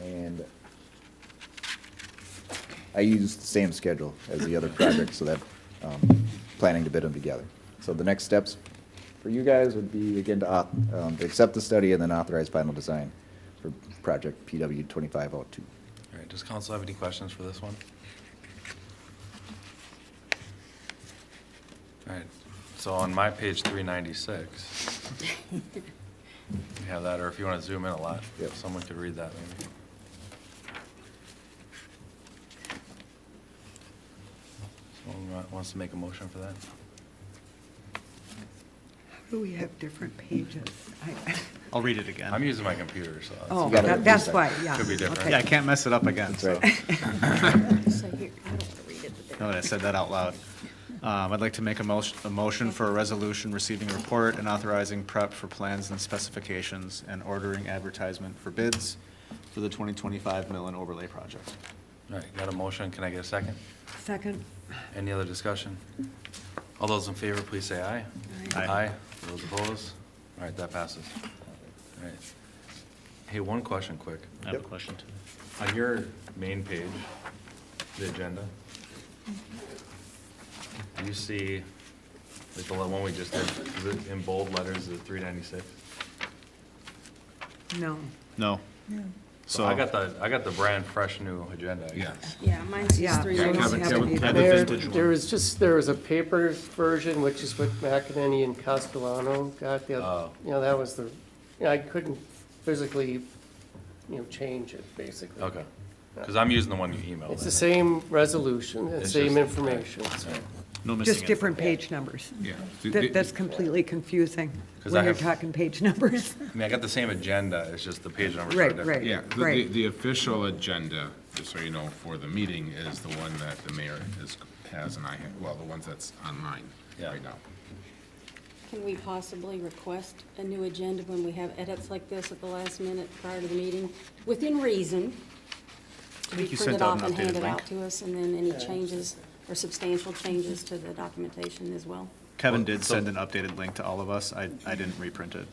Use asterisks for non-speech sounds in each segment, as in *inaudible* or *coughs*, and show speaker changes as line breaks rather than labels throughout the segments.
And I used the same schedule as the other projects, so that, um, planning to bid them together. So the next steps for you guys would be, again, to, auth- um, to accept the study and then authorize final design for project PW twenty-five oh two.
All right, does council have any questions for this one? All right, so on my page 396, we have that, or if you want to zoom in a lot,
Yep.
someone could read that maybe. Someone wa- wants to make a motion for that?
Do we have different pages? I-
I'll read it again.
I'm using my computer, so. it's-
Oh,
gotta
that- that's
reset.
why, yeah.
Could be different.
okay.
Yeah, I can't mess it up again,
That's
so.
right.
So here, I don't want to read it, but
Now that I said that out loud. Um, I'd like to make a motion, a motion for a resolution receiving a report and authorizing prep for plans and specifications and ordering advertisement for bids for the 2025 mill and overlay project.
All right, got a motion, can I get a second?
Second,
Any other discussion? All those in favor, please say aye.
Aye.
Aye. Those opposed? All right, that passes. All right. Hey, one question quick.
I have a
Yep.
question too.
On your main page, the agenda, do you see, like the one we just did, is it in bold letters, is it three ninety-six?
no.
No.
So
So,
I got the, I got the brand fresh new agenda, I guess.
yeah, mine's
Yeah,
just three.
those
lines.
have to be
Kevin,
there.
Kevin.
There, there was just, there was a paper version, which is what McInerney and Castellano got, the,
Oh.
other- you know, that was the, you know, I couldn't physically, you know, change it, basically.
Okay, because I'm using the one you emailed.
It's the same resolution, the
It's
same
just-
information, so.
no missing
Just
info.
different page numbers.
Yeah.
That- That's completely confusing
'Cause I
when you're
have-
talking page *laughs* numbers.
I mean, I got the same agenda, it's just the page numbers are
Right,
different.
right.
Yeah, the- the,
Right.
the official agenda, just so you know, for the meeting is the one that the mayor is, has and I, have- well, the ones that's online
Yeah.
right now.
Can we possibly request a new agenda when we have edits like this at the last minute prior to the meeting, within reason? To be
think you
printed
sent out
off
an
and
updated
handed
link.
out to us, and then any changes or substantial changes to the documentation as well?
Kevin did send an updated link to all of us. I, I didn't reprint it.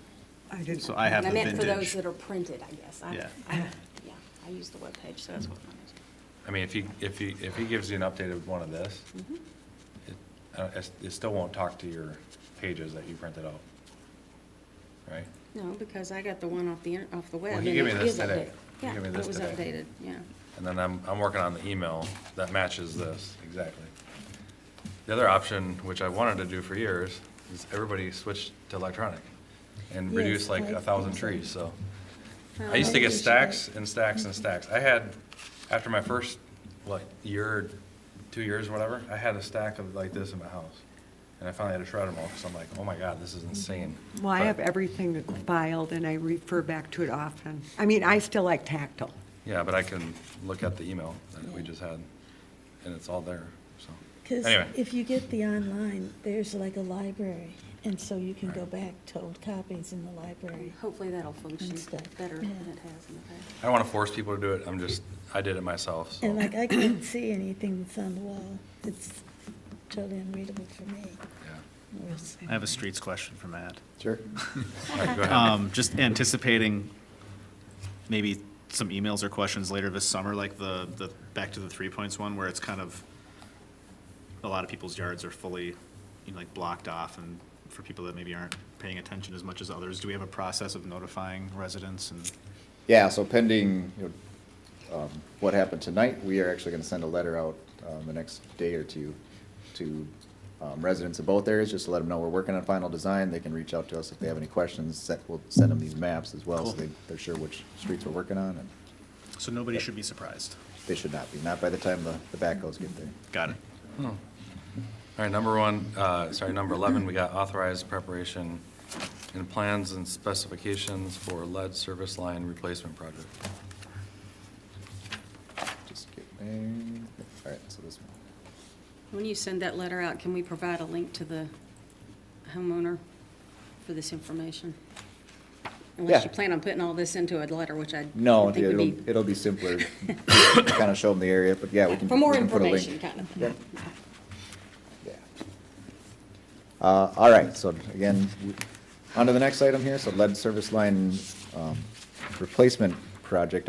I didn't-
So I have
And I
the
meant for those
vintage.
that are printed, I guess. I-
Yeah.
I- Yeah, I use the webpage, so that's what mine is.
I mean, if he, if he, if he gives you an updated one of this, it, uh, it's- it still won't talk to your pages that you printed out, right?
No, because I got the one off the, inter- off the web.
Well, he
and
gave
it
me this
is
today.
updated.
He
Yeah,
gave me
it
this
was
today.
updated, yeah.
And then I'm, I'm working on the email that matches this, exactly. The other option, which I wanted to do for years, is everybody switch to electronic and reduce
Yes,
like
I
a thousand
think so.
trees, so.
Well,
I used to
maybe
get
we should-
stacks and stacks and stacks. I had, after my first, like, year, two years, whatever, I had a stack of like this in my house. And I finally had to shred them all, because I'm like, oh my God, this is insane.
Well, I
But-
have everything that's filed and I refer back to it often. I mean, I still like tactile.
Yeah, but I can look at the email that we just had, and it's all there, so.
Because
Anyway,
if you get the online, there's like a library, and so you can go back to old copies in the library.
Hopefully that'll function
Instead.
better than
Yeah.
it has in the past.
I don't want to force people to do it. I'm just, I did it myself, so.
And like,
*coughs*
I can't see anything that's on the wall. It's totally unreadable for me.
Yeah.
I have a streets question for Matt.
Sure.
All right, go ahead.
Um, just anticipating maybe some emails or questions later this summer, like the, the, back to the three points one, where it's kind of, a lot of people's yards are fully, you know, like blocked off, and for people that maybe aren't paying attention as much as others, do we have a process of notifying residents and?
Yeah, so pending, you know, um, what happened tonight, we are actually gonna send a letter out, um, the next day or two to, um, residents of both areas, just to let them know we're working on final design, they can reach out to us if they have any questions, set, we'll send them these maps as well, so
Cool.
they, they're sure which streets we're working on, and
So nobody should be surprised.
they should not be, not by the time the, the backhoes get there.
Got it.
All right, number one, uh, sorry, number 11, we got authorized preparation and plans and specifications for lead service line replacement project.
Just get there, alright, so this one.
When you send that letter out, can we provide a link to the homeowner for this information? Unless you
Yeah.
plan on putting all this into a letter, which I
No,
would think would
it'll,
be.
it'll be simpler,
*laughs*
kinda show them the area, but yeah, we can.
For more
we can put a link.
information, kind of thing.
Yep. Yeah. Uh, all right, so again, w- on to the next item here, so lead service line, um, replacement project